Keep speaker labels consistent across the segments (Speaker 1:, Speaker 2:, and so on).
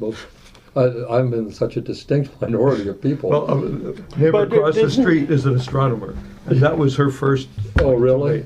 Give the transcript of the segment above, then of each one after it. Speaker 1: Well, I, I'm in such a distinct minority of people.
Speaker 2: Well, um, neighbor
Speaker 3: uh, But it
Speaker 2: across the
Speaker 3: didn't-
Speaker 2: street is an astronomer, and that was her first.
Speaker 1: oh, really?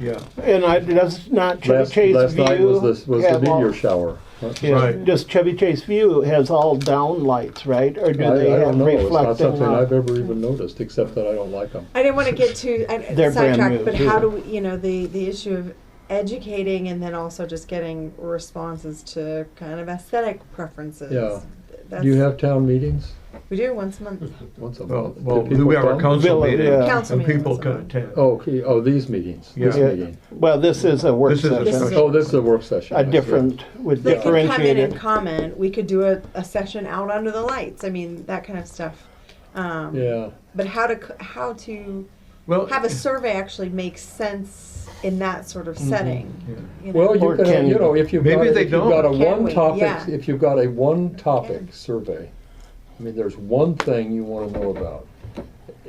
Speaker 2: Yeah,
Speaker 3: And I, that's not Chevy
Speaker 1: Last,
Speaker 3: Chase
Speaker 1: last
Speaker 3: View.
Speaker 1: night was this was the
Speaker 3: have all-
Speaker 1: meteor shower. huh?
Speaker 3: yeah,
Speaker 2: Right.
Speaker 3: Just Chevy Chase View has all down lights, right? Or do
Speaker 1: I, I
Speaker 3: they have
Speaker 1: don't know. It's not
Speaker 3: reflecting?
Speaker 1: something I've
Speaker 3: lights?
Speaker 1: ever even noticed, except that I don't like them.
Speaker 4: I didn't want to get too I-
Speaker 3: They're brand
Speaker 4: sidetracked,
Speaker 3: new,
Speaker 4: but
Speaker 3: too.
Speaker 4: how do we, you know, the, the issue of educating and then also just getting responses to kind of aesthetic preferences.
Speaker 1: Yeah.
Speaker 4: That's,
Speaker 1: Do you have town meetings
Speaker 4: we do once a month.
Speaker 1: once a
Speaker 2: well,
Speaker 1: month? Do
Speaker 2: well,
Speaker 1: people
Speaker 2: we have our
Speaker 1: come?
Speaker 2: council
Speaker 3: Villa,
Speaker 2: meeting,
Speaker 3: yeah.
Speaker 4: Council
Speaker 2: and
Speaker 4: meeting
Speaker 2: people
Speaker 4: is
Speaker 2: can
Speaker 4: on.
Speaker 2: attend.
Speaker 1: Oh, okay. oh, these meetings. This
Speaker 2: Yeah.
Speaker 1: meeting.
Speaker 3: Well, this is a work
Speaker 2: This is a
Speaker 3: session,
Speaker 4: special-
Speaker 1: Oh, this is a work session. I
Speaker 3: a
Speaker 1: see.
Speaker 3: different, with
Speaker 4: They could come in and
Speaker 3: differentiated.
Speaker 4: comment. We could do a, a session out under the lights. I mean, that kind of stuff. Um,
Speaker 1: Yeah.
Speaker 4: But how to c- how to
Speaker 2: Well,
Speaker 4: have a survey actually make sense in that sort of setting? you know?
Speaker 1: Mm-hmm. Well,
Speaker 3: Or
Speaker 1: you can,
Speaker 3: can-
Speaker 1: you know, if you've got,
Speaker 2: Maybe
Speaker 1: if
Speaker 2: they
Speaker 1: you've got a
Speaker 2: don't.
Speaker 4: Can
Speaker 1: one
Speaker 4: we?
Speaker 1: topic,
Speaker 4: Yeah.
Speaker 1: if you've got a one topic survey, I mean, there's one thing you wanna know about.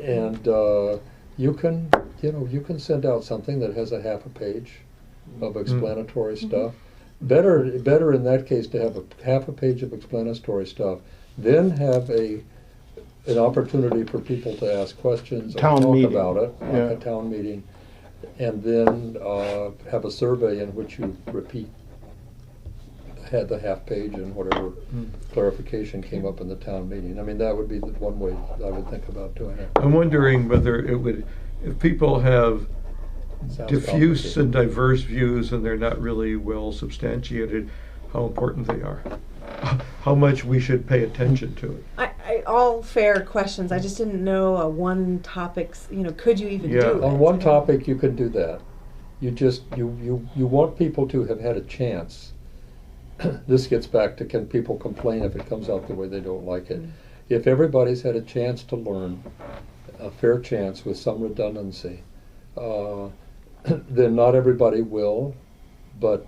Speaker 1: And, uh, you can, you know, you can send out something that has a half a page
Speaker 2: Mm-hmm.
Speaker 1: of explanatory
Speaker 4: Mm-hmm.
Speaker 1: stuff. Better, better in that case to have a half a page of explanatory stuff, then have a, an opportunity for people to ask questions or
Speaker 3: Town
Speaker 1: talk
Speaker 3: meeting.
Speaker 1: about it, like
Speaker 3: Yeah.
Speaker 1: a town meeting. And then uh, have a survey in which you repeat, had the half page and whatever
Speaker 2: Hmm.
Speaker 1: clarification came up in the town meeting. I mean, that would be the one way I would think about doing it.
Speaker 2: I'm wondering whether it would, if people have
Speaker 1: Sounds
Speaker 2: diffuse and
Speaker 1: complicated.
Speaker 2: diverse views and they're not really well substantiated, how important they are, how much we should pay attention to it.
Speaker 4: I, I, all fair questions. I just didn't know a one topics. You know, could you even
Speaker 2: Yeah.
Speaker 4: do it?
Speaker 1: On one topic, you can do that. You just, you, you, you want people to have had a chance. This gets back to can people complain if it comes out the way they don't like it? If everybody's had a chance to learn, a fair chance with some redundancy, uh, then not everybody will, but,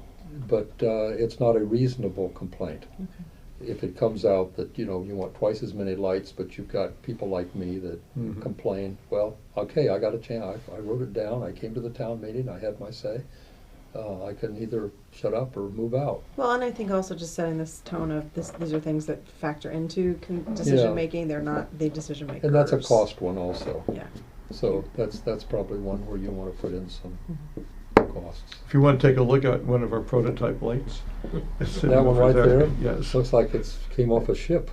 Speaker 1: but uh, it's not a reasonable complaint. If it comes out that, you know, you want twice as many lights, but you've got people like me that
Speaker 2: Mhm.
Speaker 1: complain, well, okay, I got a chance, I wrote it down, I came to the town meeting, I had my say. Uh, I can either shut up or move out.
Speaker 4: Well, and I think also just setting this tone of this. These are things that factor into con- decision making. They're not the decision makers.
Speaker 1: And that's a cost one also.
Speaker 4: Yeah.
Speaker 1: So that's, that's probably one where you want to put in some
Speaker 4: Mm-hmm.
Speaker 1: costs.
Speaker 2: If you want to take a look at one of our prototype lights. it's sitting
Speaker 1: That one
Speaker 2: over
Speaker 1: right there?
Speaker 2: Yes.
Speaker 1: Looks like it's, came off a ship.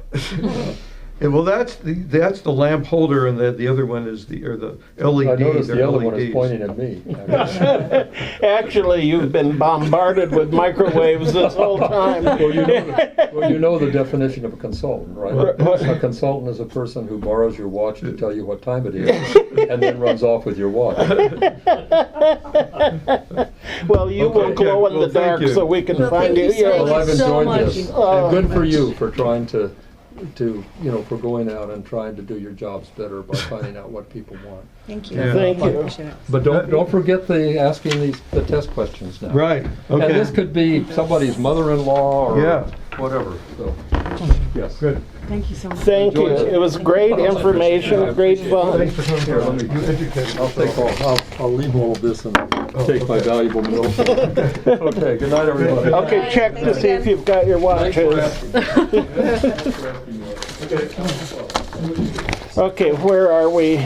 Speaker 2: Yeah, well, that's the, that's the lamp holder, and the, the other one is the, or the LED.
Speaker 1: I noticed the
Speaker 2: they're E
Speaker 1: other one is
Speaker 2: LEDs.
Speaker 1: pointing at me. Well,
Speaker 3: Actually, you've been bombarded with microwaves this whole time.
Speaker 1: you know, well, you know the definition of a consultant, right?
Speaker 3: Right.
Speaker 1: A consultant is a person who borrows your watch to tell you what time it is and then runs off with your watch.
Speaker 3: Well, you will
Speaker 2: Okay,
Speaker 3: glow in
Speaker 2: well,
Speaker 3: the
Speaker 2: thank
Speaker 3: dark
Speaker 2: you.
Speaker 3: so we can
Speaker 4: Well,
Speaker 3: find
Speaker 4: thank
Speaker 3: you.
Speaker 4: you so
Speaker 3: Yeah.
Speaker 1: Well, I've
Speaker 4: you so
Speaker 1: enjoyed
Speaker 4: much.
Speaker 1: this.
Speaker 3: Oh,
Speaker 1: And good for you for trying to, to, you know, for going out and trying to do your jobs better by finding out what people want.
Speaker 4: Thank you.
Speaker 2: Yeah.
Speaker 3: Thank
Speaker 4: I
Speaker 3: you.
Speaker 4: appreciate it.
Speaker 1: But don't, don't forget the, asking these, the test questions now.
Speaker 2: Right, okay.
Speaker 1: And this could be somebody's mother-in-law or
Speaker 2: Yeah.
Speaker 1: whatever, so, yes.
Speaker 2: Good.
Speaker 4: Thank you so much.
Speaker 3: Thank you. It was great information, great fun.
Speaker 2: Thanks for coming. Here, let me, you educated
Speaker 1: I'll take all, I'll, I'll leave all of this and take my valuable notes. Okay, good night, everybody.
Speaker 3: Okay, check to see if you've got your watches. Okay, where are we?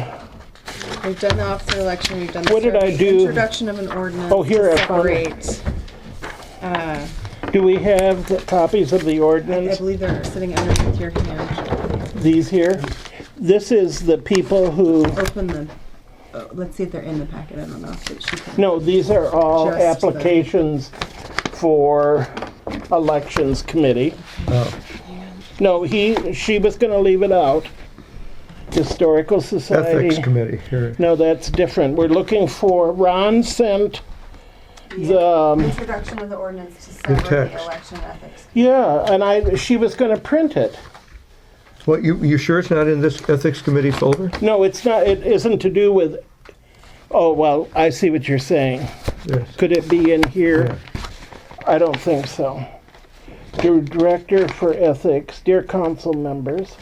Speaker 4: We've done the officer election, we've done the.
Speaker 3: What did I
Speaker 4: survey,
Speaker 3: do?
Speaker 4: Introduction of an ordinance.
Speaker 3: Oh, here
Speaker 4: to
Speaker 3: I found it.
Speaker 4: Separate. Uh,
Speaker 3: Do we have the copies of the
Speaker 4: I
Speaker 3: ordinance,
Speaker 4: believe they're sitting underneath your hand.
Speaker 3: these here? This is the people who,
Speaker 4: Open the, oh, let's see if they're in the packet. I don't know if it- she can.
Speaker 3: no, these are all
Speaker 4: Just the-
Speaker 3: applications for elections committee.
Speaker 4: Oh.
Speaker 3: No, he, she was gonna leave it out. Historical Society.
Speaker 2: Ethics Committee, here.
Speaker 3: No, that's different. We're looking for, Ron sent the, um,
Speaker 4: Introduction of the ordinance to sever the
Speaker 2: text.
Speaker 4: election ethics.
Speaker 3: yeah, and I, she was gonna print it.
Speaker 2: What, you, you sure it's not in this Ethics Committee folder?
Speaker 3: No, it's not, it isn't to do with, oh, well, I see what you're saying.
Speaker 2: Yes.
Speaker 3: Could it be in here? I don't think so. Dear Director for Ethics, dear council members,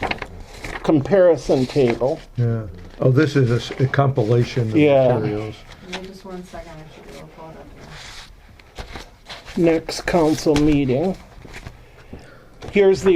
Speaker 3: comparison table.
Speaker 2: Yeah. Oh, this is a s- a compilation of
Speaker 3: Yeah.
Speaker 2: materials.
Speaker 4: Just one second, I should be able to pull it up here.
Speaker 3: next council meeting. Here's the